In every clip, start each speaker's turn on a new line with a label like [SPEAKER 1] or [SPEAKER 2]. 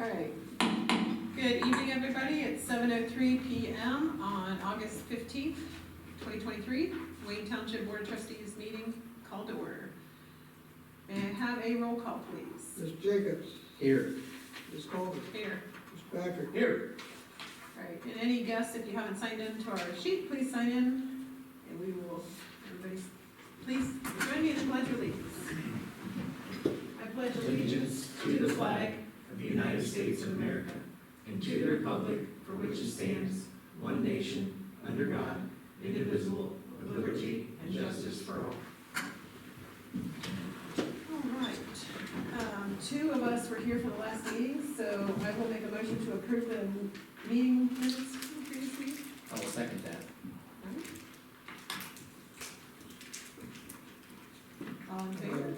[SPEAKER 1] All right. Good evening, everybody. It's seven oh three PM on August fifteenth, twenty twenty-three. Wayne Township Board of Trustees meeting called to order. May I have a roll call, please?
[SPEAKER 2] Ms. Jacobs,
[SPEAKER 3] Here.
[SPEAKER 2] Ms. Coleman,
[SPEAKER 1] Here.
[SPEAKER 2] Ms. Patrick,
[SPEAKER 3] Here.
[SPEAKER 1] All right. And any guests, if you haven't signed in to our sheet, please sign in. And we will, everybody, please join me in the pledge of allegiance. I pledge
[SPEAKER 4] allegiance to the flag of the United States of America and to the republic for which it stands, one nation, under God, indivisible, with liberty and justice for all.
[SPEAKER 1] All right, um, two of us were here for the last meeting, so I will make a motion to approve the meeting minutes from the previous meeting.
[SPEAKER 3] I will second that.
[SPEAKER 1] All in favor?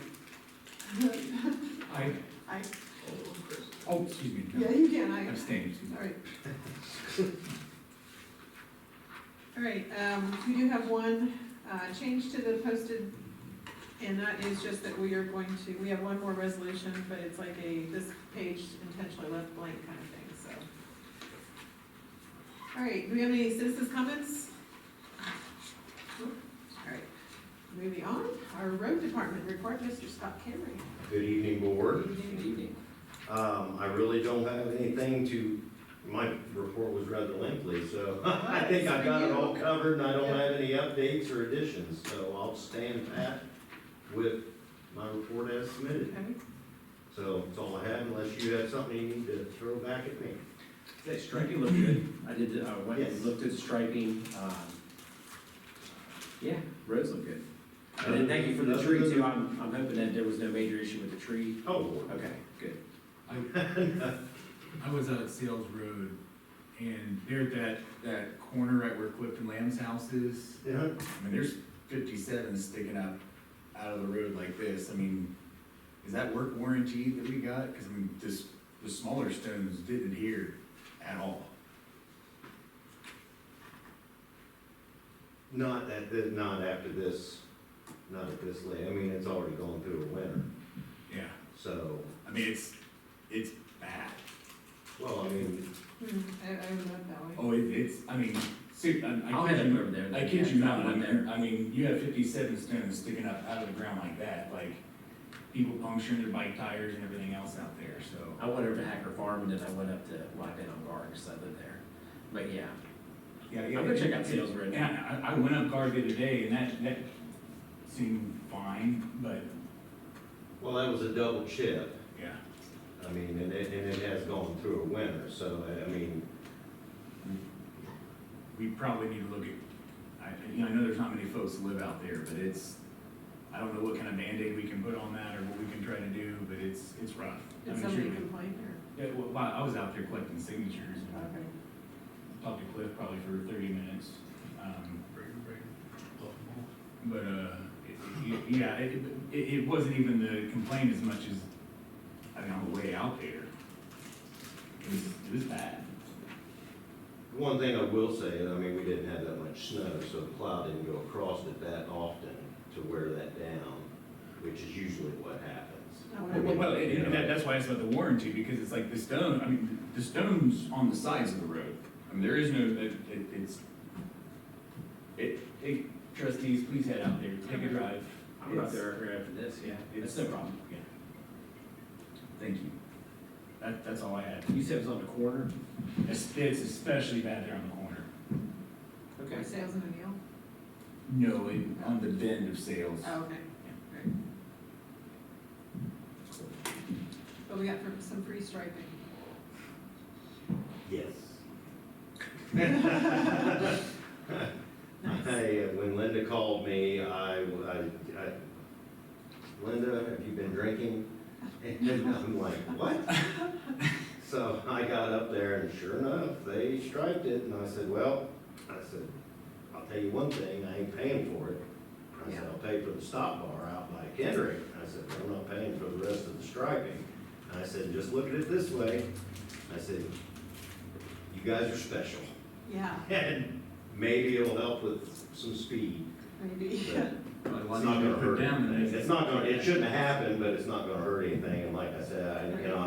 [SPEAKER 5] I,
[SPEAKER 1] I,
[SPEAKER 5] oh, excuse me,
[SPEAKER 1] yeah,
[SPEAKER 5] no,
[SPEAKER 1] you can, I,
[SPEAKER 5] abstain, excuse me.
[SPEAKER 1] all right. All right, um, we do have one, uh, change to the posted, and that is just that we are going to, we have one more resolution, but it's like a, this page intentionally left blank kind of thing, so. All right, do we have any citizens' comments? Nope. All right, moving on, our road department report, Mr. Scott Camry.
[SPEAKER 6] Good evening, board.
[SPEAKER 3] Good evening.
[SPEAKER 6] Um, I really don't have anything to, my report was rather lengthy, so I think I've got it all covered and I don't have any updates or additions, so I'll stand pat with my report as submitted.
[SPEAKER 1] Okay. Hmm,
[SPEAKER 6] So that's all I have unless you have something you need to throw back at me.
[SPEAKER 3] That striping looked good. I did, uh, went and
[SPEAKER 6] Yes.
[SPEAKER 3] looked at striping, um, yeah, roads look good. And then thank you for the tree too. I'm, I'm hoping that there was no major issue with the tree.
[SPEAKER 6] Oh, Lord.
[SPEAKER 3] Okay, good.
[SPEAKER 5] I was out at Sales Road, and there at that, that corner right where Clifton Lamb's house is,
[SPEAKER 6] Yeah.
[SPEAKER 5] I mean, there's fifty-seven sticking out, out of the road like this, I mean, is that work warranty that we got? Cause I mean, this, the smaller stones didn't adhere at all.
[SPEAKER 6] Not at, the- not after this, not at this late. I mean, it's already gone through a winter,
[SPEAKER 5] Yeah,
[SPEAKER 6] so,
[SPEAKER 5] I mean, it's, it's bad.
[SPEAKER 6] well, I mean,
[SPEAKER 1] Hmm, I, I would love that one.
[SPEAKER 5] Oh, it, it's, I mean, ser- I, I.
[SPEAKER 3] I'll
[SPEAKER 5] kid
[SPEAKER 3] head
[SPEAKER 5] you-
[SPEAKER 3] over there.
[SPEAKER 5] I kid you not, I
[SPEAKER 3] One
[SPEAKER 5] mean,
[SPEAKER 3] there.
[SPEAKER 5] I mean, you have fifty-seven stones sticking up out of the ground like that, like, people puncturing their bike tires and everything else out there, so.
[SPEAKER 3] I went over to Hacker Farm and then I went up to Lockdown on Guard because I live there. But yeah,
[SPEAKER 5] Yeah,
[SPEAKER 3] I'm gonna check out Sales Road.
[SPEAKER 5] Yeah, I, I went up guard the other day and that, that seemed fine, but,
[SPEAKER 6] well, that was a double chip.
[SPEAKER 5] yeah.
[SPEAKER 6] I mean, and it, and it has gone through a winter, so, I- I mean,
[SPEAKER 5] We probably need to look at, I, you know, I know there's not many folks that live out there, but it's, I don't know what kind of Band-Aid we can put on that or what we can try to do, but it's, it's rough. I
[SPEAKER 1] Did
[SPEAKER 5] mean,
[SPEAKER 1] somebody
[SPEAKER 5] truly.
[SPEAKER 1] complain or?
[SPEAKER 5] Yeah, well, wow, I was out there collecting signatures and
[SPEAKER 1] Okay.
[SPEAKER 5] talked to Cliff probably for thirty minutes. um, But, uh, it- it- yeah, it, it, it wasn't even the complaint as much as, I mean, on the way out there. It was, it was bad.
[SPEAKER 6] one thing I will say, is, I mean, we didn't have that much snow, so the plow didn't go across it that often to wear that down, which is usually what
[SPEAKER 1] Oh,
[SPEAKER 6] happens.
[SPEAKER 1] Well, well,
[SPEAKER 5] Well, and, and that, that's why it's about the warranty, because it's like the stone, I mean, the stone's on the sides of the road. I mean, there is no, it, it- it's, it, it, trustees, please head out there, take a drive.
[SPEAKER 3] I'm gonna go up
[SPEAKER 5] It's-
[SPEAKER 3] there right after this, yeah. It's
[SPEAKER 5] It's-
[SPEAKER 3] no problem.
[SPEAKER 5] Yeah. Thank you. That, that's all I had.
[SPEAKER 3] You said it was on the corner?
[SPEAKER 5] It's, it's especially bad there on the corner.
[SPEAKER 3] Okay.
[SPEAKER 1] Sales and O'Neill?
[SPEAKER 5] No, it, on the bend of sales.
[SPEAKER 1] Oh, okay. Great. But we got from- some free striping.
[SPEAKER 6] Yes.
[SPEAKER 1] Nice.
[SPEAKER 6] Hey, uh, when Linda called me, I, w- I- I- Linda, have you been drinking? And I'm like, what? So I got up there and sure enough, they striped it and I said, well, I said, I'll tell you one thing, I ain't paying for it. I said,
[SPEAKER 1] Yeah.
[SPEAKER 6] I'll pay for the stop bar out by Kendrick. I said, "But I'm not paying for the rest of the striping. And I said, just look at it this way. I said, you guys are special.
[SPEAKER 1] Yeah,
[SPEAKER 6] And maybe it'll help with some speed.
[SPEAKER 1] maybe.
[SPEAKER 6] but It's not gonna hurt anything. It's not gonna, it shouldn't have happened, but it's not gonna hurt anything. And like I said, I, you know,